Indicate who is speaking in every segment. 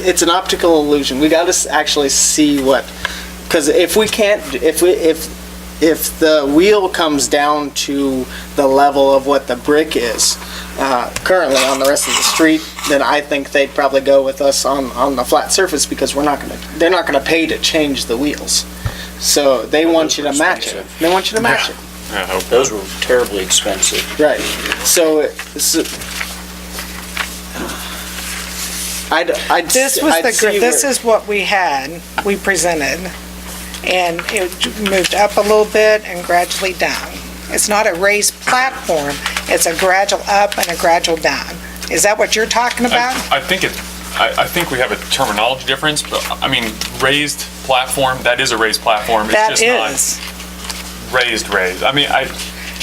Speaker 1: it's an optical illusion. We got to s- actually see what, because if we can't, if we, if, if the wheel comes down to the level of what the brick is uh, currently on the rest of the street, then I think they'd probably go with us on, on the flat surface because we're not gonna, they're not gonna pay to change the wheels. So they want you to match it. They want you to match it.
Speaker 2: Those were terribly expensive.
Speaker 1: Right. So, it- so I'd, I'd. s-
Speaker 3: This was
Speaker 1: I'd
Speaker 3: the,
Speaker 1: see
Speaker 3: gr- this
Speaker 1: where-
Speaker 3: is what we had, we presented, and it moved up a little bit and gradually down. It's not a raised platform, it's a gradual up and a gradual down. Is that what you're talking about?
Speaker 4: I, I think it, I, I think we have a terminology difference, but I mean, raised platform, that is a raised platform.
Speaker 3: That
Speaker 4: It's just
Speaker 3: is,
Speaker 4: not raised, raised. I mean, I,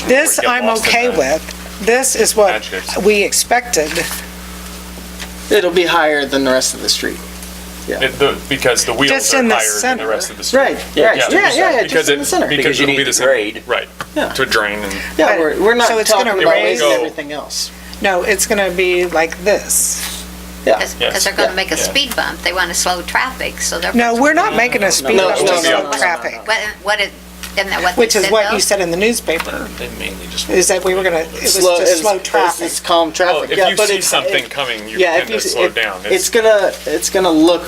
Speaker 3: this
Speaker 4: get
Speaker 3: I'm
Speaker 4: lost in
Speaker 3: okay
Speaker 4: the
Speaker 3: with. This is what
Speaker 4: Adjectives.
Speaker 3: we expected.
Speaker 1: It'll be higher than the rest of the street.
Speaker 4: it, the, because the wheels
Speaker 3: Just
Speaker 4: are
Speaker 3: in the
Speaker 4: higher than the
Speaker 3: center.
Speaker 4: rest of the street.
Speaker 1: Right, right, yeah, yeah, yeah,
Speaker 4: because
Speaker 1: just in
Speaker 4: it-
Speaker 1: the center.
Speaker 2: Because you
Speaker 4: it'll
Speaker 2: need
Speaker 4: be
Speaker 2: the
Speaker 4: same-
Speaker 2: grade.
Speaker 4: Right,
Speaker 1: Yeah.
Speaker 4: to drain and,
Speaker 1: Yeah, we're, we're not
Speaker 3: So it's
Speaker 1: talking
Speaker 3: gonna
Speaker 1: about
Speaker 3: raise-
Speaker 1: raising everything else.
Speaker 3: No, it's going to be like this.
Speaker 1: Yeah.
Speaker 4: Yes.
Speaker 5: Because they're going to make a
Speaker 4: Yeah.
Speaker 5: speed bump, they want to slow traffic, so they're.
Speaker 3: No, we're not making a speed
Speaker 1: no,
Speaker 3: up
Speaker 1: no,
Speaker 3: to
Speaker 1: no, no,
Speaker 3: slow
Speaker 1: no,
Speaker 3: traffic,
Speaker 5: What, what it, isn't that what they
Speaker 3: which is
Speaker 5: said
Speaker 3: what
Speaker 5: though?
Speaker 3: you said in the newspaper,
Speaker 2: They mainly just.
Speaker 3: is that we were going to, it was
Speaker 1: Slow-
Speaker 3: just
Speaker 1: it's-
Speaker 3: slow
Speaker 1: it's-
Speaker 3: traffic.
Speaker 1: It's calm
Speaker 4: well,
Speaker 1: traffic,
Speaker 4: if
Speaker 1: yeah,
Speaker 4: you
Speaker 1: but
Speaker 4: see
Speaker 1: it's.
Speaker 4: something coming, you
Speaker 1: Yeah, if
Speaker 4: tend
Speaker 1: you,
Speaker 4: to slow
Speaker 1: it-
Speaker 4: down.
Speaker 1: it's gonna, it's gonna look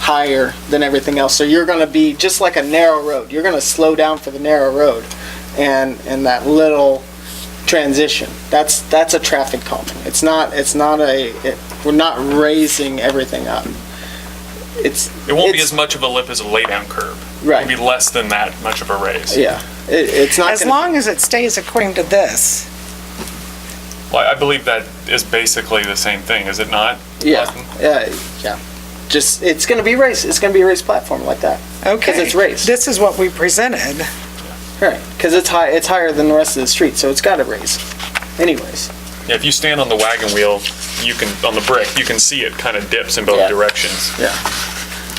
Speaker 1: higher than everything else, so you're gonna be just like a narrow road. You're gonna slow down for the narrow road and, and that little transition. That's, that's a traffic calming. It's not, it's not a, it- we're not raising everything up. It's.
Speaker 4: It won't be
Speaker 1: it's-
Speaker 4: as much of a lip as a laydown curb.
Speaker 1: Right.
Speaker 4: It'll be less than that much of a raise.
Speaker 1: Yeah, it, it's not
Speaker 3: As
Speaker 1: gonna.
Speaker 3: long as it stays according to this,
Speaker 4: Well, I believe that is basically the same thing, is it not?
Speaker 1: Yeah,
Speaker 4: Austin?
Speaker 1: yeah, yeah. Just, it's gonna be race, it's gonna be a race platform like that.
Speaker 3: okay.
Speaker 1: it's raised.
Speaker 3: This is what we presented.
Speaker 1: Right, because it's high, it's higher than the rest of the street, so it's gotta raise anyways.
Speaker 4: Yeah, if you stand on the wagon wheel, you can, on the brick, you can see it kind of dips in
Speaker 1: Yeah.
Speaker 4: both directions.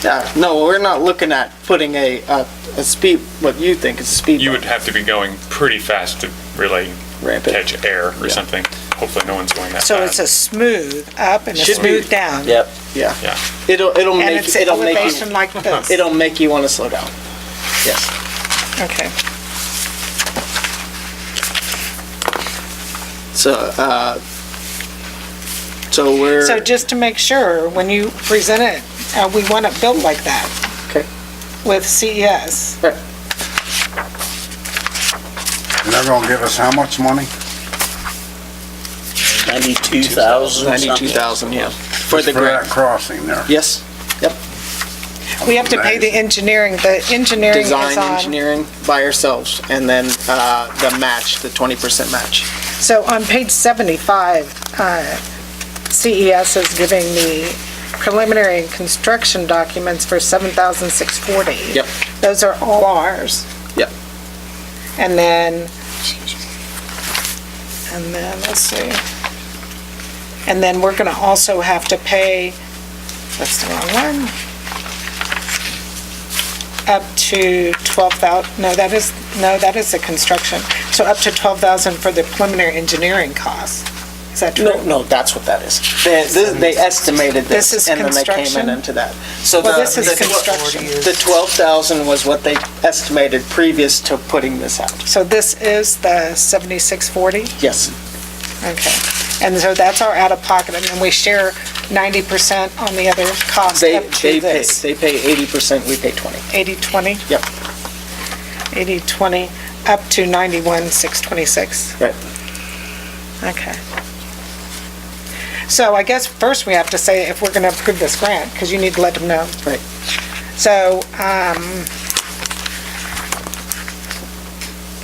Speaker 1: Yeah, no, we're not looking at putting a, a, a speed, what you think is a speed
Speaker 4: You would
Speaker 1: bump
Speaker 4: have to be going pretty fast to really
Speaker 1: ramp it.
Speaker 4: catch air
Speaker 1: Yeah.
Speaker 4: or something. Hopefully, no one's going that
Speaker 3: So it's
Speaker 4: fast.
Speaker 3: a smooth up and a
Speaker 1: Should be.
Speaker 3: smooth down.
Speaker 2: Yep.
Speaker 1: Yeah.
Speaker 4: Yeah.
Speaker 1: It'll, it'll
Speaker 3: And
Speaker 1: make,
Speaker 3: it's
Speaker 1: it'll make
Speaker 3: elevation
Speaker 1: you,
Speaker 3: like this.
Speaker 1: it'll make you wanna slow down. Yes.
Speaker 3: Okay.
Speaker 1: So, uh, so we're,
Speaker 3: So just to make sure, when you present it, uh, we want it built like that
Speaker 1: okay,
Speaker 3: with E CES.
Speaker 1: right.
Speaker 6: And they're gonna give us how much money?
Speaker 2: Ninety-two thousand
Speaker 1: Ninety-two thousand, yeah. For the
Speaker 6: Just
Speaker 1: grant,
Speaker 6: that crossing there.
Speaker 1: yes, yep.
Speaker 3: We have to pay the engineering, the engineering is
Speaker 1: Design
Speaker 3: on.
Speaker 1: engineering by ourselves, and then, uh, the match, the twenty percent match.
Speaker 3: So on page 75, uh, CES is giving the preliminary and construction documents for 7,640.
Speaker 1: Yep.
Speaker 3: Those are all ours.
Speaker 1: Yep.
Speaker 3: And then, and then, let's see. And then we're gonna also have to pay, that's the wrong one. Up to twelve thou, no, that is, no, that is the construction. So up to twelve thousand for the preliminary engineering costs. Is that true?
Speaker 1: No, no, that's what that is. They, this- they estimated
Speaker 3: This
Speaker 1: this,
Speaker 3: is
Speaker 1: and then they came in
Speaker 3: construction?
Speaker 1: into that. So
Speaker 3: Well,
Speaker 1: the-
Speaker 3: this is
Speaker 1: the tw-
Speaker 3: construction.
Speaker 1: The twelve thousand was what they estimated previous to putting this out.
Speaker 3: So this is the seventy-six forty?
Speaker 1: Yes,
Speaker 3: Okay. And so that's our out-of-pocket, and then we share ninety percent on the other cost
Speaker 1: they,
Speaker 3: up
Speaker 1: they
Speaker 3: to
Speaker 1: pay,
Speaker 3: this.
Speaker 1: they pay eighty percent, we pay twenty.
Speaker 3: Eighty twenty?
Speaker 1: Yep.
Speaker 3: Eighty twenty, up to ninety-one six twenty-six.
Speaker 1: Right.
Speaker 3: Okay. So I guess first we have to say if we're gonna approve this grant, because you need to let them know.
Speaker 1: Right.
Speaker 3: So, um,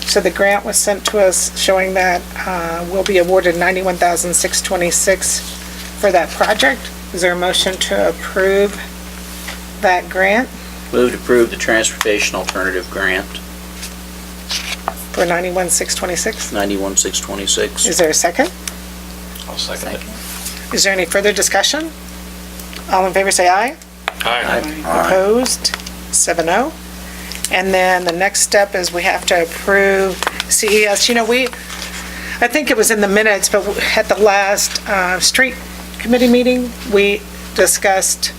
Speaker 3: so the grant was sent to us showing that, uh, we'll be awarded ninety-one thousand six twenty-six for that project. Is there a motion to approve that grant?
Speaker 2: Move to approve the transportation alternative grant,
Speaker 3: For 91,626.
Speaker 2: ninety-one, six twenty-six.
Speaker 3: Is there a second?
Speaker 2: I'll second it.
Speaker 3: Is there any further discussion? All in favor, say aye.
Speaker 4: Aye.
Speaker 3: Opposed? 7-0. And then the next step is we have to approve CES. You know, we, I think it was in the minutes, but at the last uh, street committee meeting, we discussed